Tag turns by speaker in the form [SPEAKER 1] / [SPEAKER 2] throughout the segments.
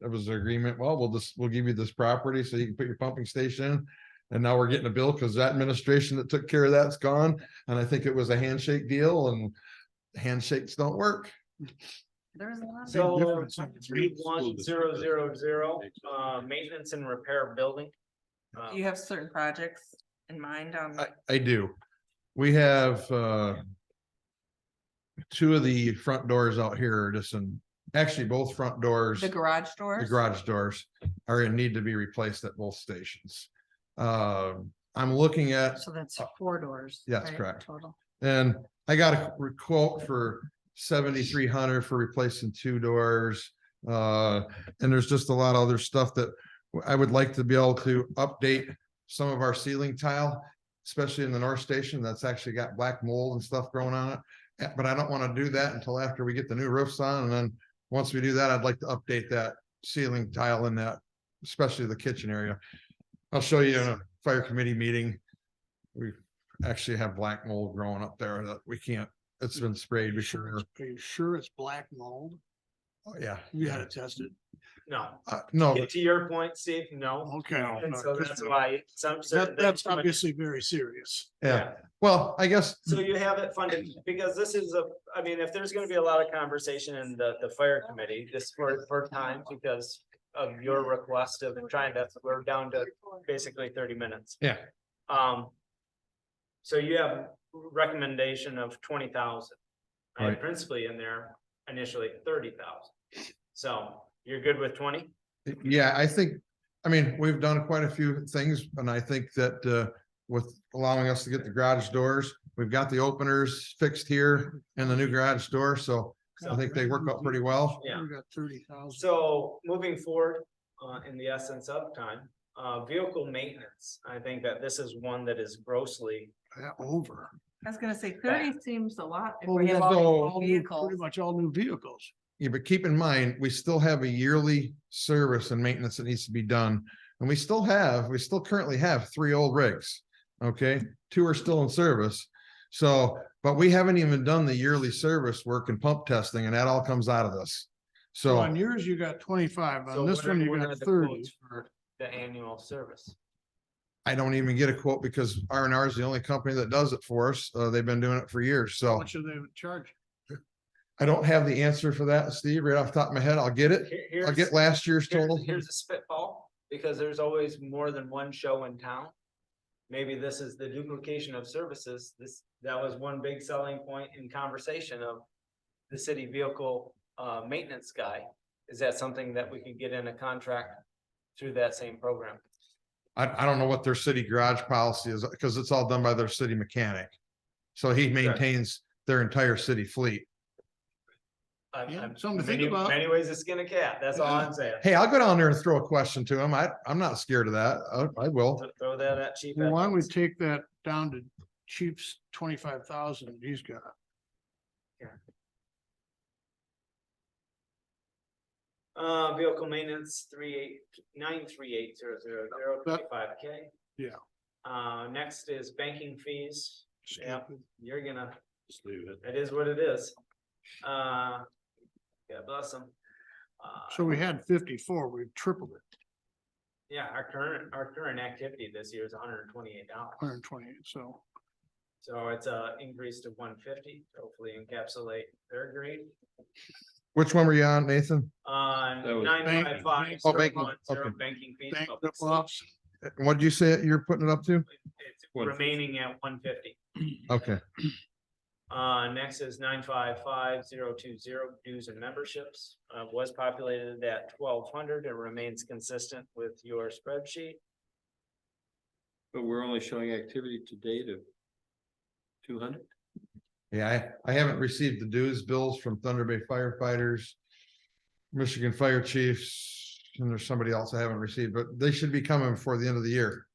[SPEAKER 1] It was an agreement, well, we'll just, we'll give you this property so you can put your pumping station. in. And now we're getting a bill because that administration that took care of that's gone. And I think it was a handshake deal and handshakes don't work.
[SPEAKER 2] There's a lot. of-
[SPEAKER 1] Big
[SPEAKER 3] So
[SPEAKER 1] difference.
[SPEAKER 3] three one zero zero zero, uh, maintenance and repair of building. Uh,
[SPEAKER 2] Do You have certain projects in mind on,
[SPEAKER 1] I, I do. We have, uh. Two of the front doors out here are just in, actually both front doors.
[SPEAKER 2] the garage
[SPEAKER 1] The
[SPEAKER 2] doors?
[SPEAKER 1] garage doors are in need to be replaced at both stations. Uh, I'm looking at,
[SPEAKER 2] So that's four doors.
[SPEAKER 1] Yeah, that's
[SPEAKER 2] right,
[SPEAKER 1] correct.
[SPEAKER 2] Total.
[SPEAKER 1] and I got a quote for seventy-three hundred for replacing two doors. Uh, and there's just a lot of other stuff that I would like to be able to update some of our ceiling tile, especially in the north station, that's actually got black mold and stuff growing on it. Eh, But I don't want to do that until after we get the new roofs on, and then, once we do that, I'd like to update that ceiling tile in that, especially the kitchen area. I'll show you in a fire committee meeting. We actually have black mold growing up there that we can't, it's been sprayed
[SPEAKER 4] You sure
[SPEAKER 1] before,
[SPEAKER 4] it's- Are you sure it's black mold?
[SPEAKER 1] Oh, yeah.
[SPEAKER 4] You had it tested?
[SPEAKER 3] No,
[SPEAKER 1] Uh, no,
[SPEAKER 3] to your point, Steve, no.
[SPEAKER 4] Okay. I'll-
[SPEAKER 3] And so that's
[SPEAKER 4] That-
[SPEAKER 3] why some. certain
[SPEAKER 4] that's
[SPEAKER 3] things-
[SPEAKER 4] obviously very serious.
[SPEAKER 1] yeah, well, I guess,
[SPEAKER 3] So you have it funded, because this is a, I mean, if there's gonna be a lot of conversation in the, the fire committee, this for, for time, because of your request of trying to, we're down to basically thirty minutes.
[SPEAKER 1] yeah,
[SPEAKER 3] Um. So you have recommendation of twenty thousand. I had
[SPEAKER 1] Right.
[SPEAKER 3] principally in there initially thirty thousand. So you're good with twenty?
[SPEAKER 1] yeah, I think, I mean, we've done quite a few things, and I think that, uh, with allowing us to get the garage doors, we've got the openers fixed here and the new garage door, so I think they work out pretty well.
[SPEAKER 3] Yeah.
[SPEAKER 4] We got thirty thousand.
[SPEAKER 3] So moving forward, uh, in the essence of time, uh, vehicle maintenance, I think that this is one that is grossly.
[SPEAKER 4] Over.
[SPEAKER 2] I was gonna say thirty seems a lot. if
[SPEAKER 4] Well,
[SPEAKER 2] we
[SPEAKER 4] we
[SPEAKER 2] have
[SPEAKER 4] have
[SPEAKER 2] all
[SPEAKER 4] all
[SPEAKER 2] these
[SPEAKER 4] new-
[SPEAKER 2] Vehicles.
[SPEAKER 4] Pretty much all new vehicles.
[SPEAKER 1] Yeah, but keep in mind, we still have a yearly service and maintenance that needs to be done. And we still have, we still currently have three old rigs. Okay, two are still in service. So, but we haven't even done the yearly service work and pump testing, and that all comes out of this.
[SPEAKER 4] So
[SPEAKER 1] So,
[SPEAKER 4] on yours, you got twenty-five.
[SPEAKER 3] So
[SPEAKER 4] On this
[SPEAKER 3] what are-
[SPEAKER 4] one, you
[SPEAKER 3] what
[SPEAKER 4] got
[SPEAKER 3] are the
[SPEAKER 4] thirty.
[SPEAKER 3] quotes For the annual service.
[SPEAKER 1] I don't even get a quote because R and R is the only company that does it for us. Uh, they've been doing it for years.
[SPEAKER 4] How
[SPEAKER 1] So
[SPEAKER 4] much are they would charge?
[SPEAKER 1] I don't have the answer for that, Steve, right off the top of my head. I'll get it.
[SPEAKER 3] Here-
[SPEAKER 1] I'll
[SPEAKER 3] here's-
[SPEAKER 1] get last year's total.
[SPEAKER 3] Here's, here's a spitball, because there's always more than one show in town. Maybe this is the duplication of services, this, that was one big selling point in conversation of the city vehicle, uh, maintenance guy. Is that something that we could get in a contract through that same program?
[SPEAKER 1] I, I don't know what their city garage policy is, because it's all done by their city mechanic. So he maintains their entire city fleet.
[SPEAKER 3] I'm-
[SPEAKER 4] Yeah,
[SPEAKER 3] I'm-
[SPEAKER 4] something to think
[SPEAKER 3] many-
[SPEAKER 4] about.
[SPEAKER 3] Many ways to skin a cat, that's all I'm saying.
[SPEAKER 1] Hey, I'll go down there and throw a question to him. I, I'm not scared of that. I, I will.
[SPEAKER 3] Th- Throw that at chief.
[SPEAKER 4] Well, Why don't we
[SPEAKER 3] Edmonds.
[SPEAKER 4] take that down to Chief's twenty-five thousand he's got?
[SPEAKER 3] Uh, vehicle maintenance, three eight, nine three eight zero zero zero
[SPEAKER 4] That-
[SPEAKER 3] twenty-five K.
[SPEAKER 4] Yeah.
[SPEAKER 3] Uh, next is banking fees. Yeah.
[SPEAKER 4] Stupid.
[SPEAKER 3] You're gonna,
[SPEAKER 5] Just leave it.
[SPEAKER 3] it is what it is. Uh, God bless them. Uh,
[SPEAKER 4] So we had fifty-four, we've tripled it,
[SPEAKER 3] yeah, our current, our current activity this year is hundred and twenty-eight dollars.
[SPEAKER 4] hundred and twenty-eight, so.
[SPEAKER 3] So it's a increase to one fifty, hopefully encapsulate their grade.
[SPEAKER 1] Which one were you on, Nathan?
[SPEAKER 3] Uh,
[SPEAKER 5] That was
[SPEAKER 3] nine five
[SPEAKER 4] banking.
[SPEAKER 3] five.
[SPEAKER 1] Oh, banking, okay.
[SPEAKER 3] Banking fees.
[SPEAKER 4] Bank
[SPEAKER 3] public safety.
[SPEAKER 4] ops,
[SPEAKER 1] What did you say you're putting it up to?
[SPEAKER 3] It's
[SPEAKER 5] 150.
[SPEAKER 3] remaining at one fifty.
[SPEAKER 1] Okay,
[SPEAKER 3] Uh, next is nine five five zero two zero dues and memberships, uh, was populated at twelve hundred and remains consistent with your spreadsheet.
[SPEAKER 5] But we're only showing activity to date of two hundred?
[SPEAKER 1] yeah, I, I haven't received the dues bills from Thunder Bay firefighters. Michigan Fire Chiefs, and there's somebody else I haven't received, but they should be coming before the end of the year.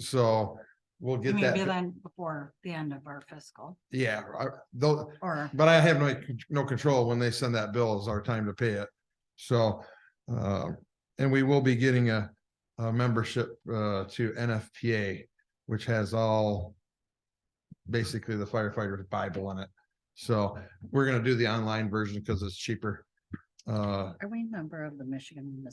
[SPEAKER 1] So we'll get
[SPEAKER 6] Maybe
[SPEAKER 1] that,
[SPEAKER 6] then before the end of our fiscal
[SPEAKER 1] yeah, I, though,
[SPEAKER 6] or
[SPEAKER 1] But I have no, no control when they send that bill is our time to pay it. So, uh, and we will be getting a, a membership, uh, to NFPA, which has all basically the firefighter's bible in it. So we're gonna do the online version because it's cheaper. Uh,
[SPEAKER 6] are we a member of the Michigan Municipal